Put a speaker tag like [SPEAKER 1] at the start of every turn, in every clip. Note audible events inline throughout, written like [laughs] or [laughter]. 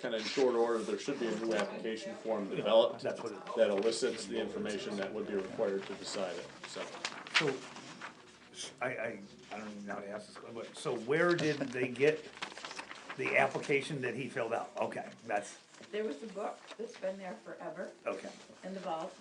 [SPEAKER 1] kind of in short order, there should be a new application form developed
[SPEAKER 2] That's what it-
[SPEAKER 1] that elicits the information that would be required to decide it, so.
[SPEAKER 2] So, s- I, I, I don't even know how to ask this, que- but, so where did they get the application that he filled out? Okay, that's,
[SPEAKER 3] There was a book that's been there forever
[SPEAKER 2] okay,
[SPEAKER 3] in the vault,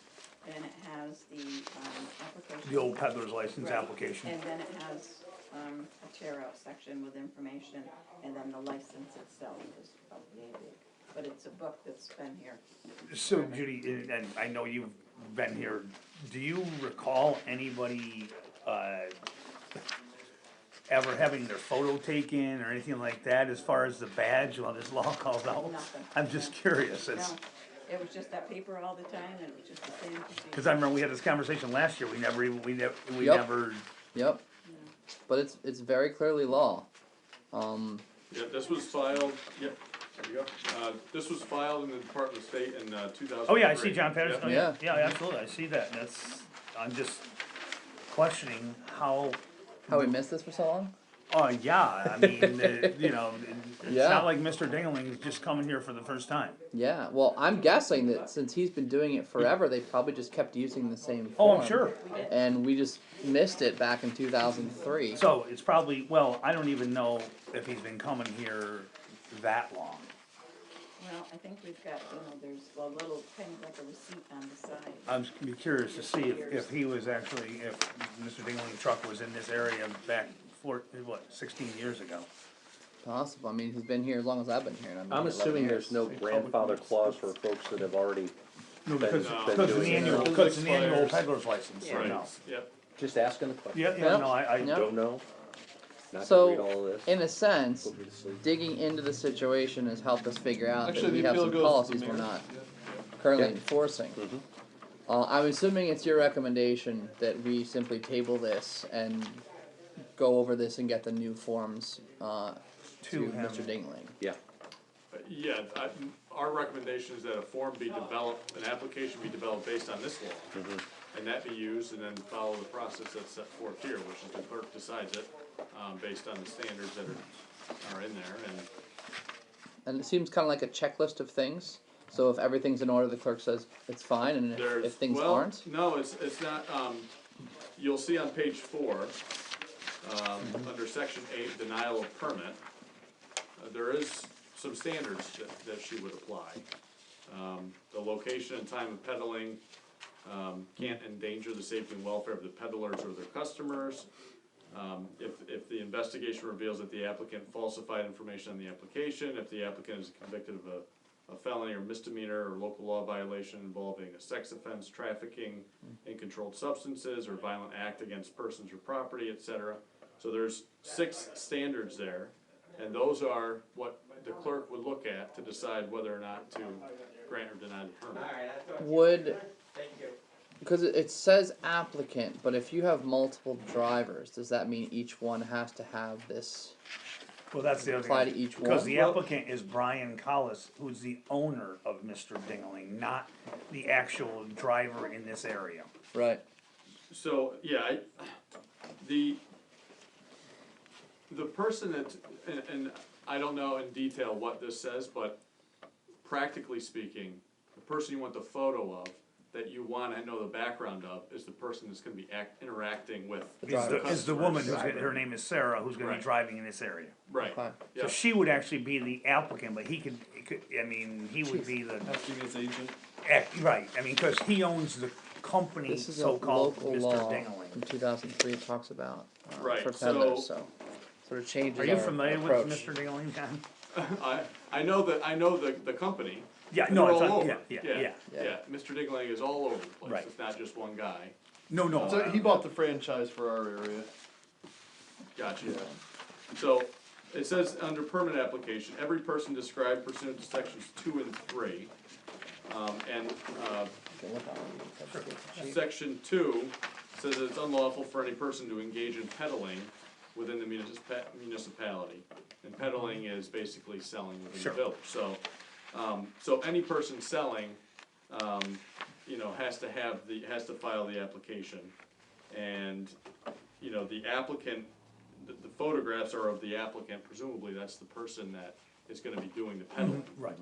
[SPEAKER 3] and it has the, um, application.
[SPEAKER 2] the old peddler's license
[SPEAKER 3] Right.
[SPEAKER 2] application,
[SPEAKER 3] And then it has, um, a tear out section with information, and then the license itself is updated. But it's a book that's been here.
[SPEAKER 2] so Judy, and- and I know you've been here, do you recall anybody, uh, ever having their photo taken or anything like that as far as the badge while this law [laughs] calls out?
[SPEAKER 3] Nothing.
[SPEAKER 2] I'm just curious, it's,
[SPEAKER 3] No, it was just that paper all the time, and it was just the same procedure.
[SPEAKER 2] cause I remember we had this conversation last year, we never, even we never, we
[SPEAKER 4] Yep.
[SPEAKER 2] never
[SPEAKER 4] Yep. But it's it's very clearly law. Um,
[SPEAKER 1] Yeah, this was filed, yep, there you go. Uh, this was filed in the Department of State in uh, two thousand.
[SPEAKER 2] Oh, yeah, I see John Patterson, oh, yeah, yeah,
[SPEAKER 4] Yeah.
[SPEAKER 2] absolutely, I see that, and that's, I'm just questioning how,
[SPEAKER 4] how we missed this for so long?
[SPEAKER 2] oh, yeah, I mean, uh, you know, it's
[SPEAKER 4] Yeah.
[SPEAKER 2] not like Mr. Dingling's just coming here for the first time.
[SPEAKER 4] Yeah. Well, I'm guessing that since he's been doing it forever, they probably just kept using the same.
[SPEAKER 2] Oh, I'm
[SPEAKER 4] form,
[SPEAKER 2] sure,
[SPEAKER 3] We did.
[SPEAKER 4] And we just missed it back in 2003.
[SPEAKER 2] so it's probably, well, I don't even know if he's been coming here that long.
[SPEAKER 3] Well, I think we've got, you know, there's a little, kind of like a receipt on the side.
[SPEAKER 2] I'm s- be curious to see if, if he was actually, if Mr. Dingling truck was in this area back four, what, sixteen years ago.
[SPEAKER 4] Possible. I mean, he's been here as long as I've been here. And I'm,
[SPEAKER 5] I'm assuming there's no grandfather clause for folks that have already,
[SPEAKER 2] No, because,
[SPEAKER 5] No.
[SPEAKER 2] because it's an
[SPEAKER 5] Been doing it.
[SPEAKER 2] annual, because it's an annual
[SPEAKER 1] Expires.
[SPEAKER 2] peddler's license,
[SPEAKER 3] Yeah.
[SPEAKER 2] right now.
[SPEAKER 1] Right, yep.
[SPEAKER 5] just asking the question.
[SPEAKER 2] Yeah, yeah,
[SPEAKER 4] Yeah.
[SPEAKER 2] no, I, I,
[SPEAKER 4] Yeah.
[SPEAKER 5] Don't know. Not to read all
[SPEAKER 4] So,
[SPEAKER 5] of this.
[SPEAKER 4] in a sense,
[SPEAKER 5] Go to sleep.
[SPEAKER 4] digging into the situation has helped us figure out that
[SPEAKER 6] Actually,
[SPEAKER 4] we
[SPEAKER 6] the
[SPEAKER 4] have
[SPEAKER 6] appeal
[SPEAKER 4] some
[SPEAKER 6] goes to
[SPEAKER 4] policies
[SPEAKER 6] the
[SPEAKER 4] we're
[SPEAKER 6] mayor.
[SPEAKER 4] not currently
[SPEAKER 5] Yeah. Mm-hmm.
[SPEAKER 4] enforcing. Uh, I'm assuming it's your recommendation that we simply table this and go over this and get the new forms uh, to,
[SPEAKER 2] To him.
[SPEAKER 4] Mr. Dingling.
[SPEAKER 5] Yeah,
[SPEAKER 1] Uh, Yeah, I, our recommendation is that a form be developed, an application be developed based on this law. And that be used and then follow the process that's set forth here, which is the clerk decides it, um, based on the standards that are, are in there and
[SPEAKER 4] And it seems kind of like a checklist of things. So if everything's in order, the clerk says it's fine, and if,
[SPEAKER 1] there's.
[SPEAKER 4] if things
[SPEAKER 1] well,
[SPEAKER 4] aren't,
[SPEAKER 1] No, it's, it's not, um, you'll see on page four, um,
[SPEAKER 4] Mm-hmm.
[SPEAKER 1] under section eight, denial of permit, uh, there is some standards that, that she would apply. Um, the location and time of peddling, um, can't endanger the safety and welfare of the peddlers or their customers. Um, if, if the investigation reveals that the applicant falsified information on the application, if the applicant is convicted of a, a felony or misdemeanor or local law violation involving a sex offense, trafficking in controlled substances, or violent act against persons or property, et cetera. So there's six standards there, and those are what the clerk would look at to decide whether or not to grant or deny the permit.
[SPEAKER 4] would because it, it says applicant, but if you have multiple drivers, does that mean each one has to have this?
[SPEAKER 2] well, that's the other thing.
[SPEAKER 4] Apply to each
[SPEAKER 2] Because
[SPEAKER 4] one.
[SPEAKER 2] the applicant is Brian Collis, who's the owner of Mr. Dingling, not the actual driver in this area.
[SPEAKER 4] Right.
[SPEAKER 1] So, yeah, I, the, the person that, and, and I don't know in detail what this says, but practically speaking, the person you want the photo of, that you wanna know the background of, is the person that's gonna be act, interacting with.
[SPEAKER 2] Is the, is the woman who's,
[SPEAKER 1] customers.
[SPEAKER 2] gonna- her name is Sarah, who's gonna be
[SPEAKER 1] Right.
[SPEAKER 2] driving in this area.
[SPEAKER 1] Right,
[SPEAKER 4] Okay.
[SPEAKER 1] yeah,
[SPEAKER 2] So she would actually be the applicant, but he could, he could, I mean, he would be the,
[SPEAKER 6] Acting as agent.
[SPEAKER 2] act- right, I mean, cause he owns the company,
[SPEAKER 4] This is a
[SPEAKER 2] so-called
[SPEAKER 4] local
[SPEAKER 2] Mr.
[SPEAKER 4] law from
[SPEAKER 2] Dingling.
[SPEAKER 4] 2003. It talks about uh,
[SPEAKER 1] Right,
[SPEAKER 4] for peddlers,
[SPEAKER 1] so-
[SPEAKER 4] so, sort of changes.
[SPEAKER 2] Are you
[SPEAKER 4] our
[SPEAKER 2] familiar with
[SPEAKER 4] approach.
[SPEAKER 2] Mr. Dingling, John?
[SPEAKER 1] I, I know that, I know the, the company.
[SPEAKER 2] Yeah,
[SPEAKER 1] and
[SPEAKER 2] no,
[SPEAKER 1] they're
[SPEAKER 2] it's,
[SPEAKER 1] all
[SPEAKER 2] not- yeah,
[SPEAKER 1] over.
[SPEAKER 2] yeah, yeah.
[SPEAKER 4] yeah.
[SPEAKER 1] Yeah, Mr. Dingling is all over the place,
[SPEAKER 2] Right.
[SPEAKER 1] it's not just one guy,
[SPEAKER 2] No, no.
[SPEAKER 6] So
[SPEAKER 2] uh,
[SPEAKER 6] he bought the franchise for our area.
[SPEAKER 1] gotcha. So, it says under permit application, every person described pursuant to sections two and three. Um, and, uh,
[SPEAKER 4] Can look on it.
[SPEAKER 1] section two says that it's unlawful for any person to engage in peddling within the municip- municipality. And peddling is basically selling within the
[SPEAKER 2] Sure.
[SPEAKER 1] village, so, um, so any person selling, um, you know, has to have the, has to file the application. And, you know, the applicant, the, the photographs are of the applicant, presumably that's the person that
[SPEAKER 7] is gonna be doing the peddling.
[SPEAKER 1] Right.